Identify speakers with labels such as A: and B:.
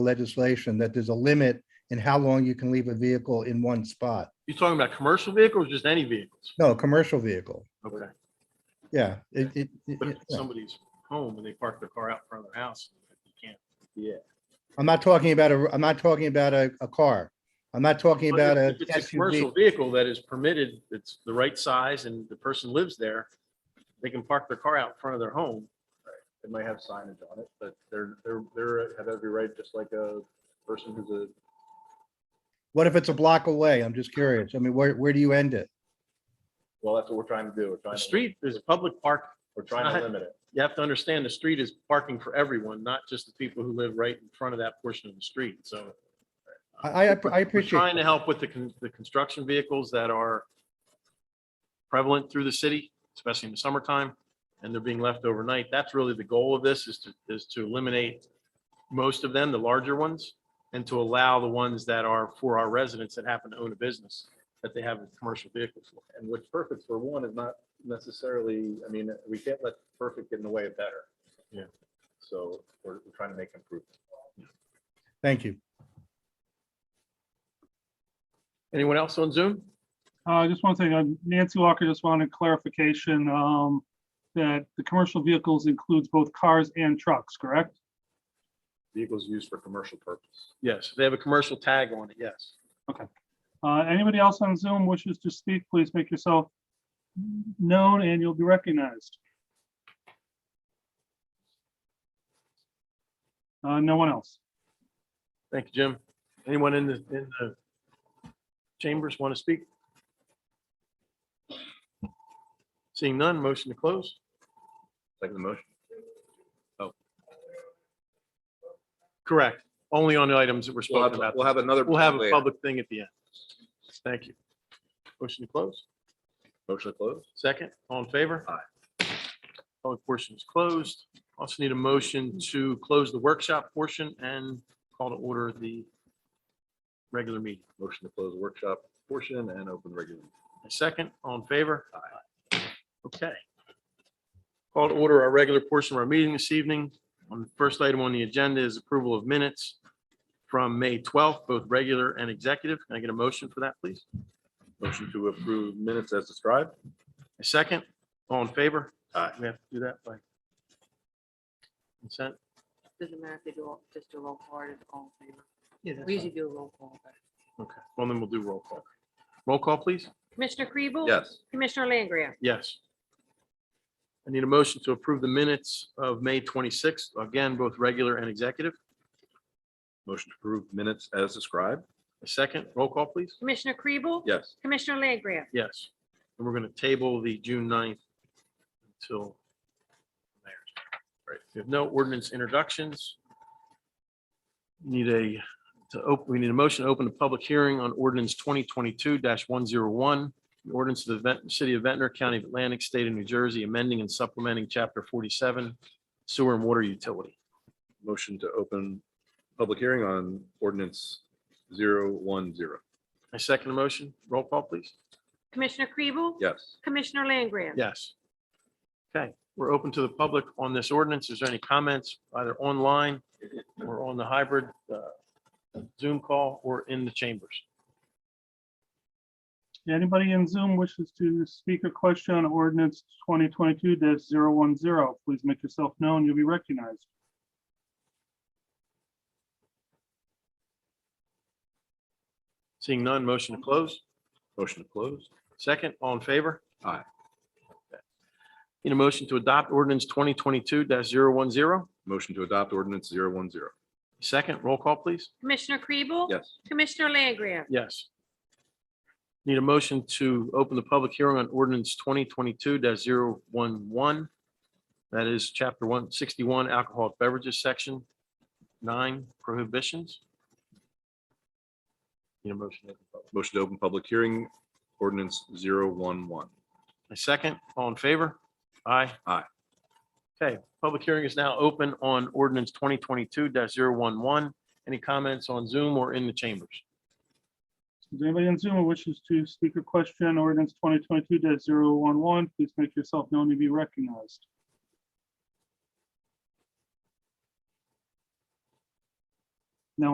A: legislation that there's a limit in how long you can leave a vehicle in one spot.
B: You're talking about commercial vehicles, just any vehicles?
A: No, a commercial vehicle.
B: Okay.
A: Yeah, it, it, it-
B: But if
A: it-
B: it's somebody's home and they park their car out in front of their house, you can't. Yeah.
A: I'm not talking about a, I'm not talking about a, a car. I'm not talking about a.
B: If it's a
A: SUV.
B: commercial vehicle that is permitted, it's the right size and the person lives there, they can park their car out in front of their home.
C: It might have signage on it, but they're, they're, they're, have every right, just like a person who's a,
A: What if it's a block away? I'm just curious. I mean, where, where do you end it?
C: well, that's what we're trying to do. We're trying
B: The
C: to-
B: street is public park.
C: We're trying
B: not-
C: to limit it.
B: You have to understand the street is parking for everyone, not just the people who live right in front of that portion of the street. So
A: I, I- I
B: We're
A: appreciate.
B: trying to help with the, con- the construction vehicles that are prevalent through the city, especially in the summertime, and they're being left overnight. That's really the goal of this is to, is to eliminate most of them, the larger ones, and to allow the ones that are for our residents that happen to own a business, that they have a commercial vehicle for.
C: And what's perfect for one is not necessarily, I mean, we can't let perfect get in the way of better.
B: Yeah.
C: So we're, we're trying to make improvements.
A: Thank you.
B: Anyone else on Zoom?
D: Uh, just one thing, uh, Nancy Walker just wanted clarification, um, that the commercial vehicles includes both cars and trucks, correct?
C: Vehicles used for commercial purpose.
B: Yes, they have a commercial tag on it, yes.
D: Uh, anybody else on Zoom wishes to speak, please make yourself known and you'll be recognized. Uh, no one else.
B: Thank you, Jim. Anyone in the, in the chambers want to speak? Seeing none, motion to close.
C: Second the motion.
B: Correct. Only on the items that we're
E: We'll
B: spoken
E: have,
B: about.
E: we'll have another.
B: We'll have a
E: later.
B: public thing at the end. Thank you. Motion to close.
C: Motion to close.
B: Second, all in favor? Aye. Public portion is closed. Also need a motion to close the workshop portion and call to order the regular meeting.
C: Motion to close workshop portion and open regular.
B: A Second, all in favor? Okay. Call to order our regular portion of our meeting this evening. On the first item on the agenda is approval of minutes from May 12th, both regular and executive. Can I get a motion for that, please?
C: Motion to approve minutes as described.
B: A second, all in favor? Uh, We have to do that by consent.
F: Doesn't matter if they do, all- just do roll call or just all in favor. We usually do a roll call. but-
B: Okay, well, then we'll do roll call. Roll call, please?
F: Commissioner Kribel?
C: Yes.
F: Commissioner Langria?
B: Yes. I need a motion to approve the minutes of May 26th, again, both regular and executive.
C: Motion to approve minutes as described.
B: A second, roll call, please?
F: Commissioner Kribel?
C: Yes.
F: Commissioner Langria?
B: Yes. And we're going to table the June 9th until there. Right. We have no ordinance introductions. Need a, to open, we need a motion to open a public hearing on ordinance twenty twenty-two one zero one. Ordinance of the Ven- City of Ventnor, County of Atlantic, State of New Jersey, amending and supplementing chapter forty-seven sewer and water utility.
C: Motion to open public hearing on ordinance zero one zero.
B: I second the motion. Roll call, please.
F: Commissioner Kribel?
C: Yes.
F: Commissioner Langria?
B: Yes. Okay, we're open to the public on this ordinance. Is there any comments either online or on the hybrid uh, Zoom call or in the chambers?
D: Anybody in Zoom wishes to speak or question on ordinance twenty twenty-two 10 please make yourself known, you'll be recognized.
B: Seeing none, motion to close.
C: Motion to close.
B: Second, all in favor?
C: Aye.
B: Okay. Need a motion to adopt ordinance twenty twenty-two 10
C: Motion to adopt ordinance zero one zero.
B: Second, roll call, please.
F: Commissioner Kribel?
C: Yes.
F: Commissioner Langria?
B: Yes. Need a motion to open the public hearing on ordinance twenty twenty-two 11 That is chapter one sixty-one alcoholic beverages, section nine prohibitions. Need a motion. to open public.
C: Motion to open public hearing, ordinance zero one one.
B: A second, all in favor? Aye.
C: Aye.
B: Okay, public hearing is now open on ordinance twenty twenty-two 11 Any comments on Zoom or in the chambers?
D: Does anybody on Zoom who wishes to speak or question ordinance twenty twenty-two 11 please make yourself known to be recognized.